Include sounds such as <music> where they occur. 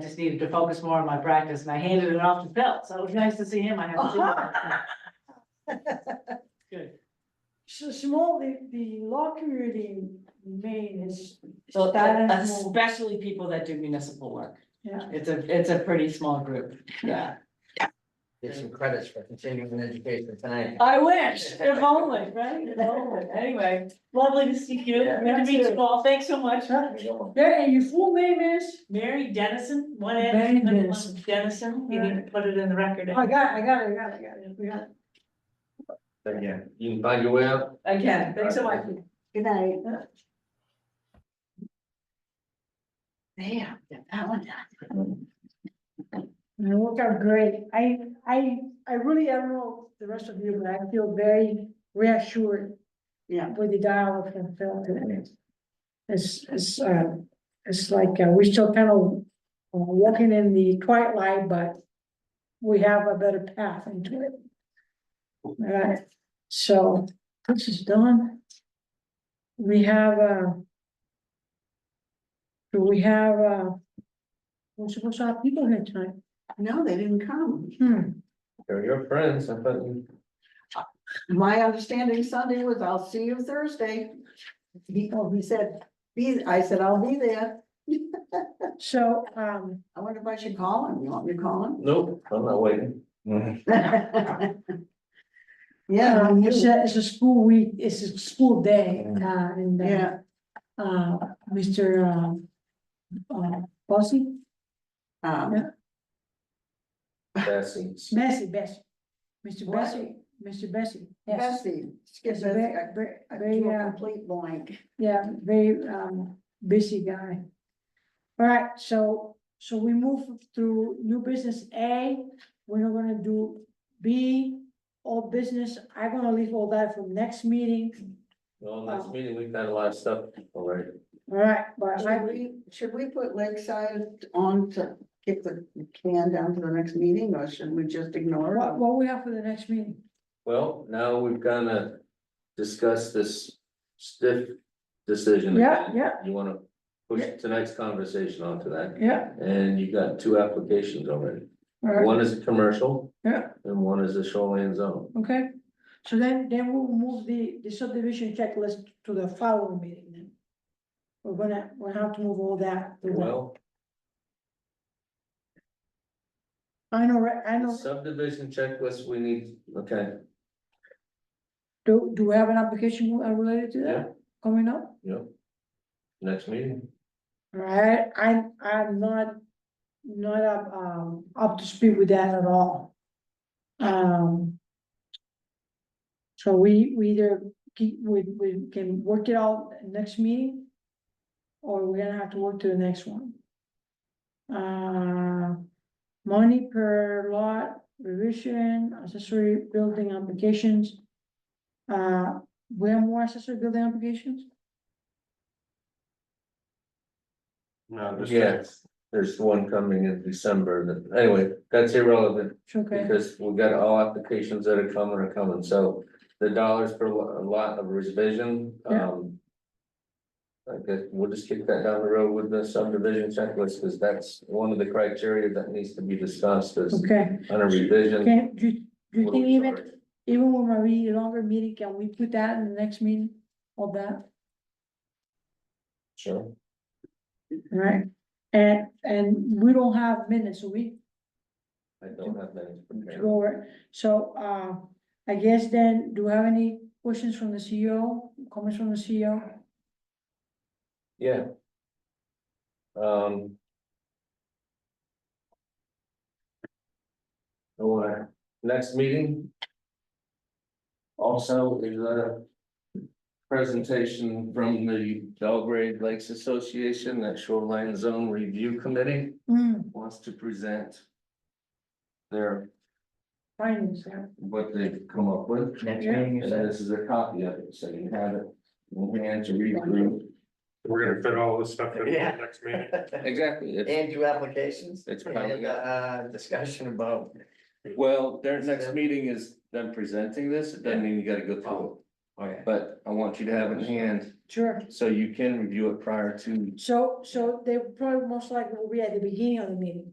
I just needed to focus more on my practice and I handed it off to Phil, so it was nice to see him, I haven't seen <laughs> him. Good. So small, the, the law community in Maine is, So That is more- especially people that do municipal work, yeah, it's a, it's a pretty small group, yeah. Get some credits for continuing education tonight. Ah, I wish, if only, right, if only, <laughs> anyway, lovely to see you, good to meet you all, thanks so much. yeah, and your full name is, Mary Dennison, one Mary N, Dennison. Dennison, you need to put it in the record. I got, I got, it, I got, it, I got, it, we got. it. Yeah, you can find your way out. Again, thanks so much. Good night. Damn, got that one done. And it worked out great, I, I, I really, I don't know the rest of you, but I feel very reassured. Yeah. With the dialogue from Phil today. It's, it's, uh, it's like, uh, we're still kind of uh, walking in the twilight, but we have a better path into it. All right, so this is done. We have, uh, do we have, uh, we're supposed to have people here tonight? No, they didn't come. Hmm, They're your friends, I thought you. My understanding Sunday was I'll see you Thursday. He, oh, he said, be, I said, I'll be there. so, um, I wonder if I should call him. You want me to call him? <laughs> Nope, I'm not waiting. Yeah, um, I'm it's you. a, it's a school week, it's a school day, uh, and, uh, yeah, uh, Mr. Um. Uh, Bossy, um, Bessie. Bessie, Bessie, Mr. What? Bessie, Mr. Bessie, yes. Bessie, skip It's a Bessie, ve- I- ve- I very, drew a uh, complete blank. Yeah, very um busy guy. All right, so so we move through new business A, we're not gonna do B. All business, I'm gonna leave all that for next meeting, Well, next Oh. meeting, we've got a lot of stuff already. all right, but Should I, we, should we put Lakeside on to kick the can down to the next meeting, or should we just ignore what it? what we have for the next meeting? Well, now we've gonna discuss this stiff decision. Yeah, again. yeah. You wanna push tonight's conversation onto that, Yeah, and you got two applications already. all right, One is a commercial. Yeah. And one is a shoreline zone. okay, so then then we'll move the the subdivision checklist to the following meeting then. We're gonna, we'll have to move all that. to the- Well, I know, right, I know, subdivision checklist, we need, okay. do do we have an application uh, related to Yeah. that coming up? Yep. Next meeting. Right, I, I'm not, not up, um, up to speed with that at all. Um. So we, we either keep, we, we can work it out next meeting. Or we're gonna have to work to the next one. Uh, money per lot, revision, accessory building applications. Uh, we have more accessory building applications? No, there's. Yes, there's one coming in December, but anyway, that's irrelevant, It's okay. because we got all applications that are coming are coming, so. The dollars per lo- lot of revision, Yeah. um. I guess we'll just kick that down the road with the subdivision checklist, because that's one of the criteria that needs to be discussed is Okay, on a revision. can, do, do you what are think we even, charging? Even when we read longer meeting, can we put that in the next meeting, all that, Sure, right? And, and we don't have minutes, we, I don't have that. to prepared. go over, so, uh, I guess then, do we have any questions from the CEO, comments from the E CEO? Yeah. Um. Our next meeting. Also is a. Presentation from the Belgrade Lakes Association, that Shoreline Zone Review Committee Hmm, wants to present. Their, findings, yeah. what they've come up with, Next Yeah. meeting, and you said, this is a copy of it, so you have it. in hand to read through. we're gonna fit all this stuff in the Yeah. next meeting. <laughs> Exactly, it's- And your applications? It's piling And, up. uh, discussion about. Well, their next meeting is them presenting this, it doesn't mean you gotta go through. Okay. but I want you to have it in hand, Sure. so you can review it prior to So, so they probably most likely will be at the beginning of the meeting.